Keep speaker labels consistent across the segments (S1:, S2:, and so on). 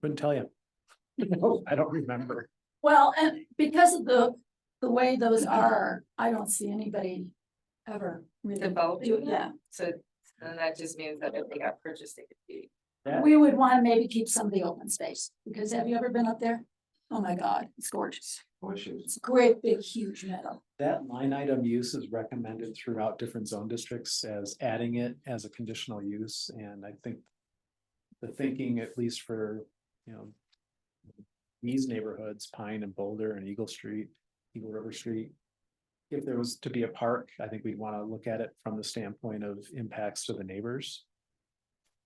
S1: Couldn't tell you. I don't remember.
S2: Well, and because of the, the way those are, I don't see anybody ever
S3: The
S2: really.
S3: vote?
S2: do it. Yeah,
S3: So then that just means that if they got purchased, they could be.
S1: Yeah.
S2: we would want to maybe keep some of the open space, because have you ever been up there? Oh my God, it's gorgeous.
S4: Bushes.
S2: It's a great, big, huge meadow.
S1: That line item use is recommended throughout different zone districts as adding it as a conditional use, and I think. The thinking, at least for, you know. These neighborhoods, Pine and Boulder and Eagle Street, Eagle River Street. If there was to be a park, I think we'd wanna look at it from the standpoint of impacts to the neighbors.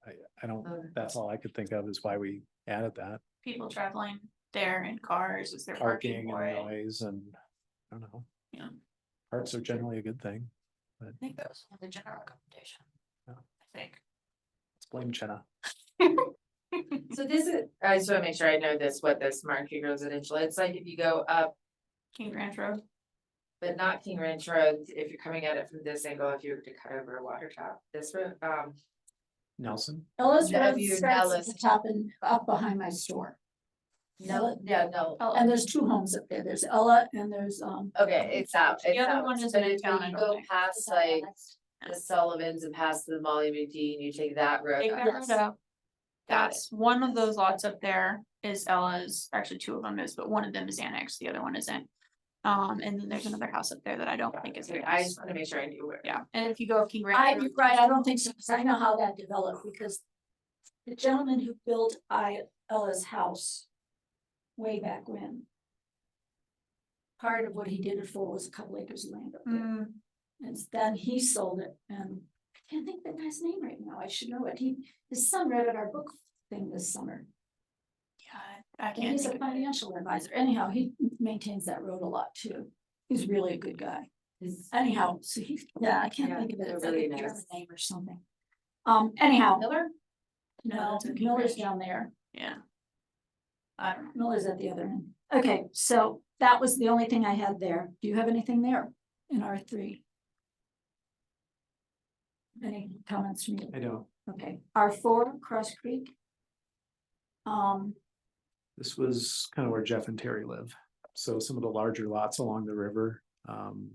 S1: I, I don't, that's all I could think of is why we added that,
S5: people traveling there in cars, is there parking
S1: parking
S5: for
S1: and
S5: it? I
S1: noise and, I don't know.
S5: Yeah.
S1: Parks are generally a good thing.
S5: think that was the general recommendation.
S1: Yeah.
S5: I think.
S1: Let's blame Chena.
S3: So this is, I just wanna make sure I know this, what the Smart Creek Residential, it's like if you go up,
S5: King Ranch Road,
S3: but not King Ranch Road, if you're coming at it from this angle, if you were to cut over Watertop, this road, um.
S1: Nelson,
S2: Ellis
S3: Yeah, if
S2: Road
S3: you're
S2: starts at
S3: Dallas.
S2: the top and up behind my store,
S3: No, yeah, no,
S5: oh,
S2: and there's two homes up there. There's Ella and there's, um.
S3: okay, it's out,
S5: The
S3: it's
S5: other
S3: out,
S5: one is
S3: but if
S5: Midtown, I
S3: you
S5: don't
S3: go
S5: think.
S3: past like the Sullivan's and past the Molly McD and you take that road.
S5: Take
S3: up,
S5: that road out.
S3: Got it.
S5: That's one of those lots up there is Ella's, actually two of them is, but one of them is annexed, the other one isn't. Um, and then there's another house up there that I don't think is
S3: Okay, I just
S5: annexed.
S3: wanna make sure I knew where.
S5: Yeah, and if you go up King
S2: I,
S5: Ranch. Road,
S2: you're right, I don't think so, because I know how that developed, because the gentleman who built I, Ella's house way back when, part of what he did it for was a couple acres of land up there,
S5: Mm,
S2: and then he sold it, and I can't think of the guy's name right now, I should know it, he, his son read at our book thing this summer,
S5: yeah, I
S2: and
S5: can't
S2: he's
S5: think
S2: a
S5: of it.
S2: financial advisor, anyhow, he maintains that road a lot too, he's really a good guy. Anyhow, so he, yeah, I can't
S3: Yeah,
S2: think of it,
S3: they're
S2: it's like
S3: really
S2: a German
S3: nice.
S2: name or something. Um, anyhow,
S3: Miller?
S2: no,
S5: that's okay,
S2: Miller's
S5: Rich.
S2: down there,
S5: Yeah. I don't know.
S2: Miller's at the other end. Okay, so that was the only thing I had there. Do you have anything there in R three? Any comments from
S5: Mm-hmm.
S2: you?
S1: I don't,
S2: Okay, R four, Cross Creek. Um,
S1: this was kind of where Jeff and Terry live, so some of the larger lots along the river. Um,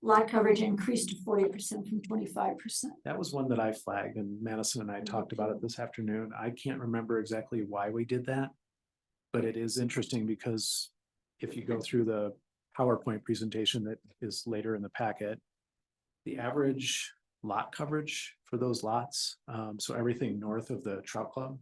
S2: lot coverage increased to forty percent from twenty-five percent.
S1: that was one that I flagged and Madison and I talked about it this afternoon. I can't remember exactly why we did that. But it is interesting because if you go through the PowerPoint presentation that is later in the packet. The average lot coverage for those lots, um, so everything north of the trout club.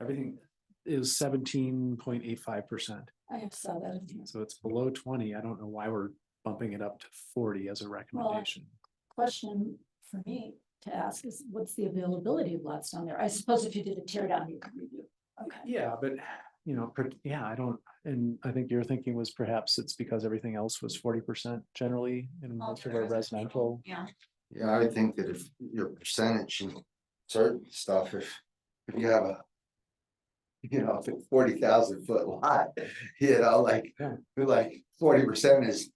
S1: Everything is seventeen point eight five percent.
S2: I have saw that. in here.
S1: So it's below twenty. I don't know why we're bumping it up to forty as a recommendation.
S2: Question for me to ask is what's the availability of lots down there? I suppose if you did a tear down, you could review. Okay.
S1: Yeah, but you know, per- yeah, I don't, and I think your thinking was perhaps it's because everything else was forty percent generally in
S5: All
S1: most of our residential.
S5: Yeah.
S4: Yeah, I would think that if your percentage and certain stuff, if, if you have a. You know, forty thousand foot lot, you know, like,
S1: Yeah.
S4: like forty percent is,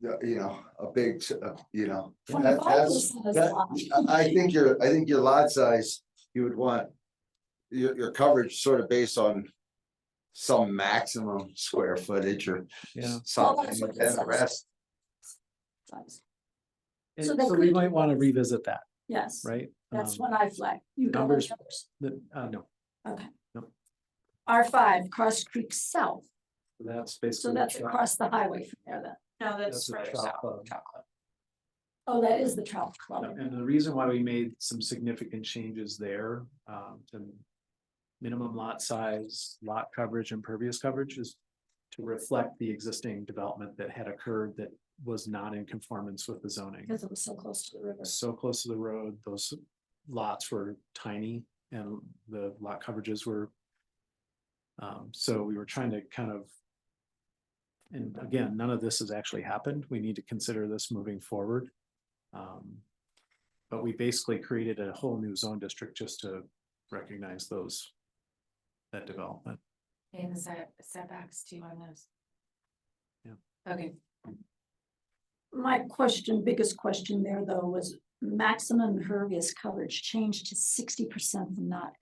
S4: you you know, a big, s- uh, you know. that-
S2: Twenty-five
S4: That's,
S2: percent is a
S4: that-
S2: lot.
S4: I, I think your, I think your lot size, you would want. Your, your coverage sort of based on. Some maximum square footage or
S1: Yeah.
S4: something,
S2: that's
S4: and
S2: what it
S4: the
S2: says.
S4: rest,
S1: And
S2: So they
S1: so we
S2: could
S1: might
S2: do
S1: want to
S2: those.
S1: revisit that,
S2: Yes,
S1: right?
S2: that's
S1: Um,
S2: what I flag. You got
S1: numbers-
S2: those numbers.
S1: the- uh, no,
S2: R five, Cross Creek South.
S1: that's basically.
S2: So
S1: the
S2: that's
S1: trout-
S2: across the highway from there then.
S5: No,
S1: That's
S5: that's
S1: the
S5: further
S1: trout
S5: south,
S1: club.
S5: Trout Club.
S2: Oh, that is the trout club.
S1: And the reason why we made some significant changes there, um, to minimum lot size, lot coverage, impervious coverage is to reflect the existing development that had occurred that was not in conformance with the zoning.
S2: Because it was so close to the river.
S1: So close to the road, those lots were tiny and the lot coverages were um, so we were trying to kind of and again, none of this has actually happened. We need to consider this moving forward. Um, But we basically created a whole new zone district just to recognize those that development.
S3: And the set setbacks too on those.
S1: Yeah.
S3: Okay,
S2: My question, biggest question there though, was maximum impervious coverage changed to sixty percent from not